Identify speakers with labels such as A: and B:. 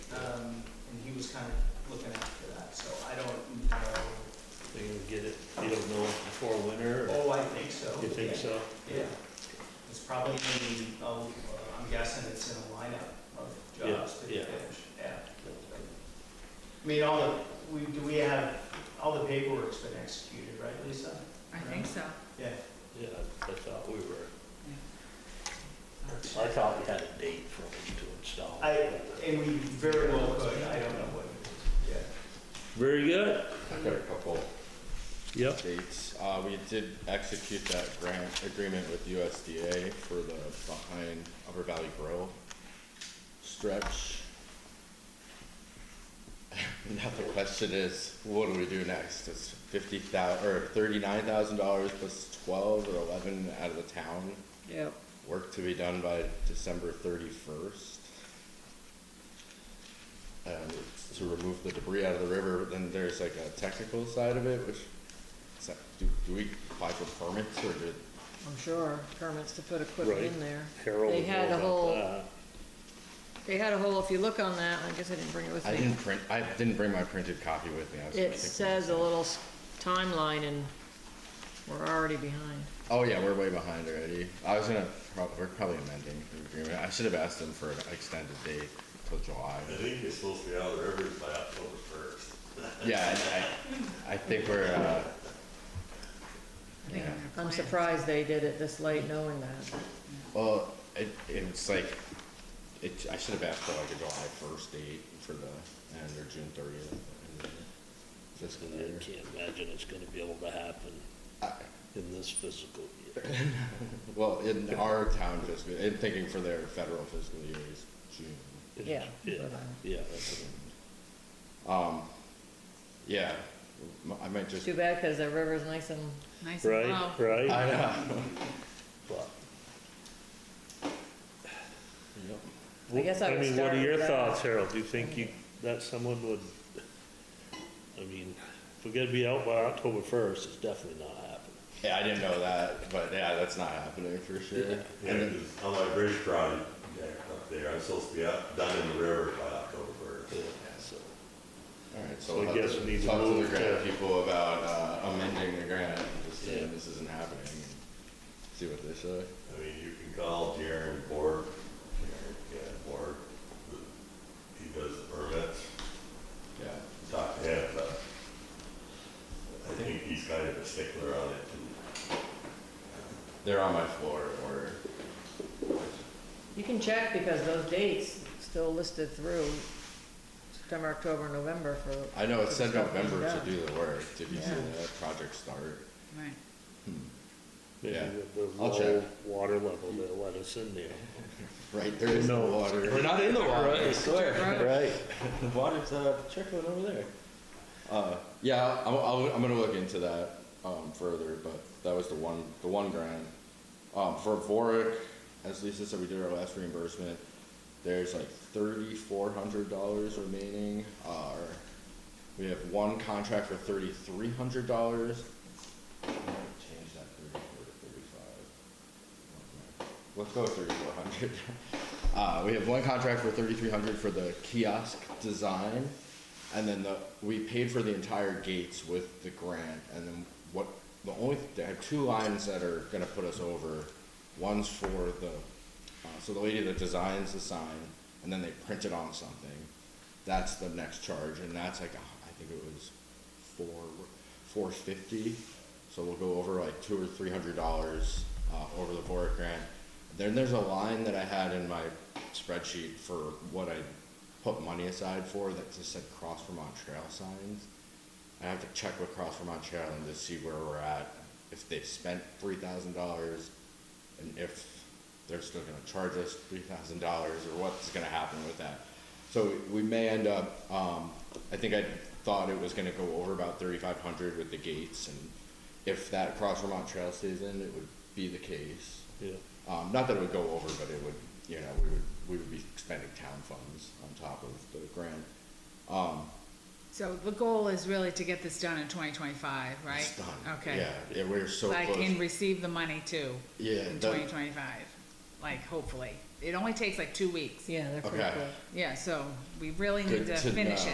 A: Um, kind of looking after that, so I don't know.
B: They can get it, you don't know before winter, or
A: Oh, I think so.
B: you think so?
A: Yeah, Yeah. it's probably in, the- oh, uh, I'm guessing it's in a lineup of jobs to
B: Yeah, yeah.
A: finish, yeah. I mean, all the, we, do we have, all the paperwork's been executed, right, Lisa?
C: I think so.
A: Yeah,
B: Yeah, I thought we were, I
C: Uh,
B: thought we had a date for them to install.
A: I, and we very well could, I don't know what it is,
B: Very good,
D: I've got a couple
B: yep.
D: updates. Uh, we did execute that grant agreement with USDA for the behind Upper Valley Grill stretch. Now the question is, what do we do next? It's fifty thou, or thirty-nine thousand dollars plus twelve or eleven out of the town.
C: Yep.
D: Work to be done by December thirty-first. And it's to remove the debris out of the river, but then there's like a technical side of it, which, is that- do, do we apply for permits or do?
E: I'm sure, permits to put equipment
B: Right.
E: in there.
B: Carol
E: They
B: would
E: had
B: know
E: a
B: about
E: whole-
B: that.
E: They had a whole, if you look on that, I guess I didn't bring it with
D: I
E: me.
D: didn't print, I didn't bring my printed copy with me. I was
E: It
D: thinking-
E: says a little s- timeline and we're already behind.
D: Oh yeah, we're way behind already. I was gonna, prob- we're probably amending the agreement. I should have asked them for an extended date till July.
F: I think it's supposed to be out of the rivers by October first.
D: Yeah, I- I, I think we're, uh,
C: I think
D: Yeah.
C: they're
E: I'm
C: planned.
E: surprised they did it this late knowing that.
D: Well, it, it's like, it, I should have asked for like a July first date for the, end or June thirtieth. Fiscal
B: And
D: year.
B: I can't imagine it's gonna be able to happen
D: I-
B: in this physical year.
D: Well, in our town fiscal, in thinking for their federal fiscal year is June.
E: Yeah.
B: Yeah, yeah, that's what I'm-
D: Um, yeah, m- I might just,
E: Too bad because the river's nice and,
C: Nice and low.
B: Right, right,
D: I know.
B: but.
D: Yep.
E: I guess I would
B: mean, what
E: start
B: are your
E: with that.
B: thoughts, Harold? Do you think you, that someone would, I mean, if we're gonna be out by October first, it's definitely not happening.
D: Yeah, I didn't know that, but yeah, that's not happening for sure.
F: Yeah,
D: And then-
F: 'cause on my bridge project up there, I'm supposed to be out, done in the river by October first.
B: Yeah, so.
D: Alright,
B: So
D: so
B: I
D: we'll have
B: guess we need
D: to
B: to
D: talk to the
B: move
D: grant
B: to-
D: people about uh, amending the grant, and just
B: Yeah.
D: saying this isn't happening, and see what they say.
F: I mean, you can call Jaren Borg, Jaren, yeah, Borg, he does the permits,
D: Yeah,
F: talk to him, but I think he's kind of a stickler on it.
D: they're on my floor, or,
E: you can check because those dates still listed through September, October, November for,
D: I know it said November to
E: Yeah.
D: do the work, did you see
E: Yeah.
D: that project start?
C: Right.
B: Maybe
D: Yeah.
B: with the
D: I'll
B: low
D: check.
B: water level, they'll let us in there.
D: Right, there is no
B: No.
D: water. We're not in the water, I
C: Right.
D: swear. Right. The water's, uh, trickling over there. Uh, yeah, I'm, I'll, I'm gonna look into that, um, further, but that was the one, the one grant. Um, for Vorik, as Lisa said, we did our last reimbursement. There's like thirty-four hundred dollars remaining, uh, we have one contract for thirty-three hundred dollars. Change that thirty-four to thirty-five. Let's go with thirty-four hundred. Uh, we have one contract for thirty-three hundred for the kiosk design. And then the, we paid for the entire gates with the grant, and then what, the only, there are two lines that are gonna put us over. One's for the, uh, so the lady that designs the sign, and then they print it on something. That's the next charge, and that's like, uh, I think it was four, four fifty. So we'll go over like two or three hundred dollars, uh, over the board grant. Then there's a line that I had in my spreadsheet for what I put money aside for that just said Cross Vermont Trail signs. I have to check with Cross Vermont Trail and to see where we're at, if they've spent three thousand dollars, and if they're still gonna charge us three thousand dollars, or what's gonna happen with that. So we may end up, um, I think I thought it was gonna go over about thirty-five hundred with the gates, and if that Cross Vermont Trail stays in, it would be the case.
B: Yeah,
D: Um, not that it would go over, but it would, you know, we would, we would be spending town funds on top of the grant. Um,
C: So the goal is really to get this done in twenty twenty-five, right?
D: it's done.
C: Okay.
D: Yeah, yeah, we're so
C: Like, and
D: close.
C: receive the money too.
D: Yeah,
C: In
D: that-
C: twenty twenty-five, like, hopefully. It only takes like two weeks.
E: yeah, they're pretty
D: Okay.
E: quick.
C: Yeah, so we really need
D: Good
C: to
D: to
C: finish
D: know.
C: it.